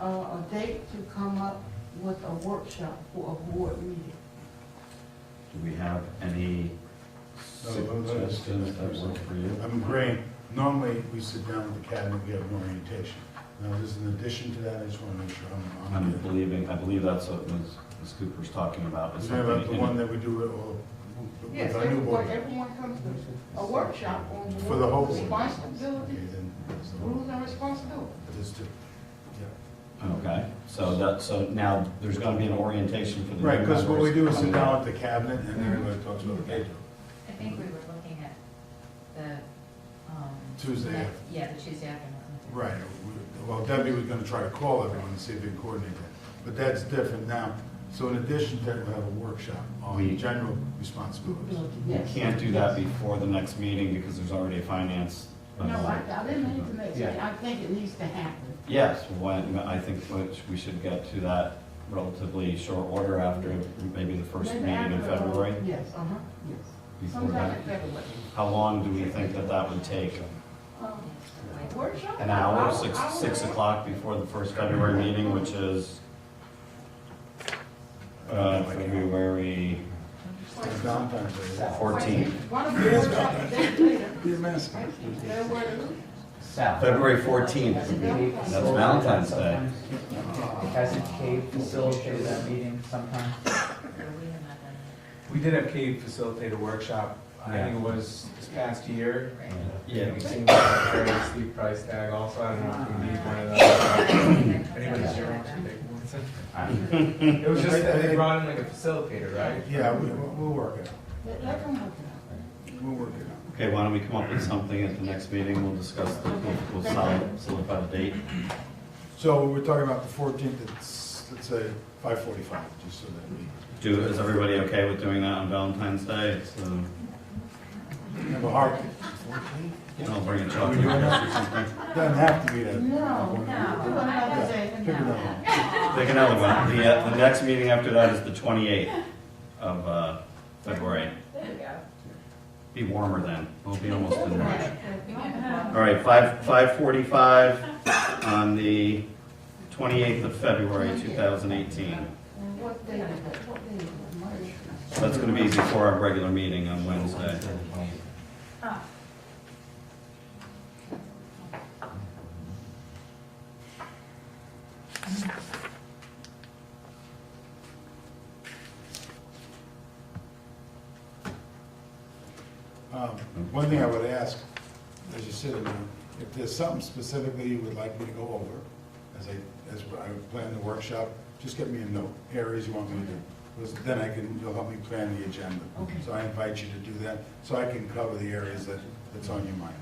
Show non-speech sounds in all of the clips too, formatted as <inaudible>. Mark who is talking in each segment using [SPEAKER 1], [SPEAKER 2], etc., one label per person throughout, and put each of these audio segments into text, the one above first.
[SPEAKER 1] uh, a date to come up with a workshop for a board meeting.
[SPEAKER 2] Do we have any
[SPEAKER 3] No, no, no, it's-
[SPEAKER 2] suggestions that work for you?
[SPEAKER 3] I'm agreeing, normally we sit down with the cabinet, we have an orientation. Now, this is in addition to that, I just want to make sure I'm,
[SPEAKER 2] I'm
[SPEAKER 3] I'm.
[SPEAKER 2] believing, I believe that's what Ms. Ms. Cooper's talking about. is
[SPEAKER 3] Is that about
[SPEAKER 2] something
[SPEAKER 3] the
[SPEAKER 2] in-
[SPEAKER 3] one that we do with all-
[SPEAKER 1] Yes,
[SPEAKER 3] with our new board?
[SPEAKER 1] everyone, everyone comes to a workshop on
[SPEAKER 3] For the whole
[SPEAKER 1] board
[SPEAKER 3] board?
[SPEAKER 1] responsibility,
[SPEAKER 3] Okay, then, so,
[SPEAKER 1] rules and responsibility.
[SPEAKER 3] there's two. Yeah.
[SPEAKER 2] Okay, so that, so now there's gonna be an orientation for the. new
[SPEAKER 3] Right, because what we do is sit
[SPEAKER 2] members.
[SPEAKER 3] down with the cabinet and
[SPEAKER 1] Mm-hmm.
[SPEAKER 3] everybody talks about what they do.
[SPEAKER 4] I think we were looking at the, um.
[SPEAKER 3] Tuesday.
[SPEAKER 4] next- Yeah, the Tuesday afternoon.
[SPEAKER 3] Right, we- well, Debbie was gonna try to call everyone and see if they can coordinate that, but that's different now. So in addition to that, we have a workshop
[SPEAKER 2] We-
[SPEAKER 3] on general responsibilities.
[SPEAKER 1] Yes.
[SPEAKER 2] Can't do that before the next meeting because there's already a finance.
[SPEAKER 1] No, I, I didn't mean to make,
[SPEAKER 2] Yeah.
[SPEAKER 1] I think it needs to happen.
[SPEAKER 2] Yes, when, I think which we should get to that relatively short order after maybe the first
[SPEAKER 1] Maybe
[SPEAKER 2] meeting in
[SPEAKER 1] after, uh,
[SPEAKER 2] February.
[SPEAKER 1] Yes, uh-huh, yes.
[SPEAKER 2] before
[SPEAKER 1] Sometime
[SPEAKER 2] that.
[SPEAKER 1] in February.
[SPEAKER 2] How long do we think that that would take?
[SPEAKER 1] Um, Workshop?
[SPEAKER 2] An hour,
[SPEAKER 1] I'll-
[SPEAKER 2] six,
[SPEAKER 1] I'll-
[SPEAKER 2] six o'clock before the first February meeting, which is, uh, February,
[SPEAKER 1] Mm-hmm.
[SPEAKER 3] Valentine's Day.
[SPEAKER 2] 14.
[SPEAKER 1] Why don't we workshop a day later?
[SPEAKER 3] Be a mess.
[SPEAKER 1] February,
[SPEAKER 2] February fourteenth. That's Valentine's Day.
[SPEAKER 5] Hasn't Cave facilitated that meeting sometime?
[SPEAKER 4] So we have not done
[SPEAKER 6] We did have Cave facilitate a workshop, I think it was this past year.
[SPEAKER 4] that, right?
[SPEAKER 6] And
[SPEAKER 2] Yeah,
[SPEAKER 6] we seemed to have a very steep price tag also, I don't know if we need one
[SPEAKER 7] <coughs>
[SPEAKER 6] of those. Anybody's here wants to take one? It was just that they brought in like a facilitator, right?
[SPEAKER 3] Yeah, we, we'll we'll work it out,
[SPEAKER 1] let let them work it
[SPEAKER 3] we'll work it out.
[SPEAKER 2] okay, why don't we come up with something at the next meeting, we'll discuss, the- we'll, we'll solid- solidify the date.
[SPEAKER 3] So we're talking about the fourteenth, it's, let's say, five forty-five, just so that we
[SPEAKER 2] Do, is everybody okay with doing that on Valentine's Day? It's, uh,
[SPEAKER 3] have a heart.
[SPEAKER 2] I'll bring a chocolate or something.
[SPEAKER 3] Doesn't have to be that.
[SPEAKER 1] out. No, no, do another day.
[SPEAKER 3] Pick another one.
[SPEAKER 2] Pick another one. The, uh, the next meeting after that is the twenty-eighth of, uh, February.
[SPEAKER 4] There we go.
[SPEAKER 2] Be warmer then. We'll be almost in March.
[SPEAKER 4] We might have-
[SPEAKER 2] All right, five, five forty-five on the twenty-eighth of February, two thousand eighteen.
[SPEAKER 1] And what day is that? What day is that? March?
[SPEAKER 2] That's gonna be before our regular meeting on Wednesday.
[SPEAKER 3] Um, One thing I would ask, as you sit in there, if there's something specifically you would like me to go over, as I, as I plan the workshop, just get me a note, areas you want me to do. Because Then I can, you'll help me plan the agenda.
[SPEAKER 1] Okay.
[SPEAKER 3] So I invite you to do that, so I can cover the areas that, that's on your mind.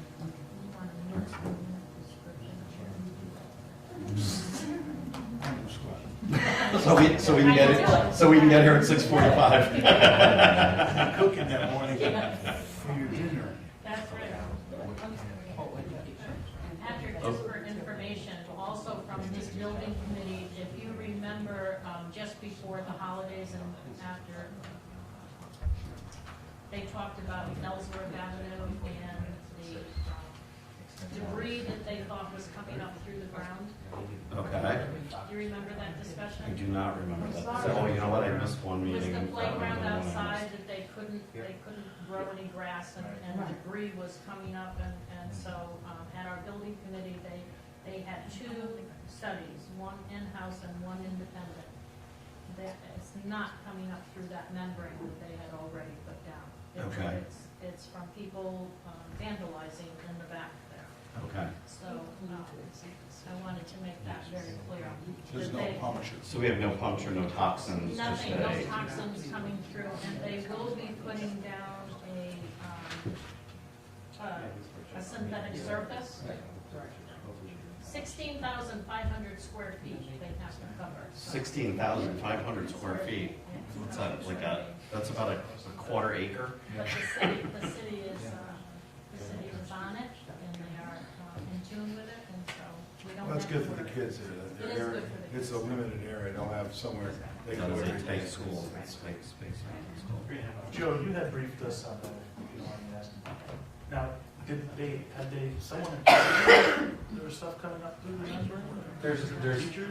[SPEAKER 2] So we, so we can get it, so we can get here at six <laughs> forty-five.
[SPEAKER 3] I'm cooking that morning for your dinner.
[SPEAKER 7] That's right. And Patrick, just for information, also from this building committee, if you remember, um, just before the holidays and after, they talked about Ellsworth Avenue and the debris that they thought was coming up through the ground.
[SPEAKER 2] Okay.
[SPEAKER 7] Do you remember
[SPEAKER 2] I
[SPEAKER 7] that
[SPEAKER 2] do
[SPEAKER 7] discussion?
[SPEAKER 2] not remember that. So, oh, you know what? I missed one
[SPEAKER 7] It was
[SPEAKER 2] meeting.
[SPEAKER 7] the playground
[SPEAKER 2] That one I missed.
[SPEAKER 7] outside that they couldn't, they couldn't grow any grass and, and debris was coming up and, and so, um, at our building committee, they, they had two studies, one in-house and one independent. That is not coming up through that membrane that they had already put down. It's-
[SPEAKER 2] Okay.
[SPEAKER 7] It's, it's from people um, vandalizing in the back there,
[SPEAKER 2] Okay.
[SPEAKER 7] so, um, I wanted to make that very clear.
[SPEAKER 3] There's
[SPEAKER 7] that
[SPEAKER 3] no
[SPEAKER 7] they-
[SPEAKER 3] puncture.
[SPEAKER 2] So we have no puncture, no toxins to
[SPEAKER 7] Nothing, no
[SPEAKER 2] say.
[SPEAKER 7] toxins coming through, and they will be putting down a, um, a- a synthetic surface. Sixteen thousand five hundred square feet they have to cover. so-
[SPEAKER 2] Sixteen thousand five hundred square feet. What's that, like a, that's about a a quarter acre?
[SPEAKER 7] But the city, the city is, uh, the city is on it, and they are uh, in tune with it, and so we don't have.
[SPEAKER 3] That's good
[SPEAKER 7] to
[SPEAKER 3] for the
[SPEAKER 7] worry.
[SPEAKER 3] kids. uh, their
[SPEAKER 7] It is
[SPEAKER 3] area-
[SPEAKER 7] good for the
[SPEAKER 3] It's a
[SPEAKER 7] kids.
[SPEAKER 3] limited area, they'll have somewhere they
[SPEAKER 2] That
[SPEAKER 3] can.
[SPEAKER 2] is
[SPEAKER 3] go
[SPEAKER 2] a
[SPEAKER 3] every
[SPEAKER 2] tight
[SPEAKER 3] day.
[SPEAKER 2] school, it's tight space around the school.
[SPEAKER 8] Joe, you had briefed us on that, if you don't mind me asking. Now, did <coughs> they, had they, someone, there was stuff coming up through the newsroom?
[SPEAKER 6] There's, there's
[SPEAKER 8] Teachers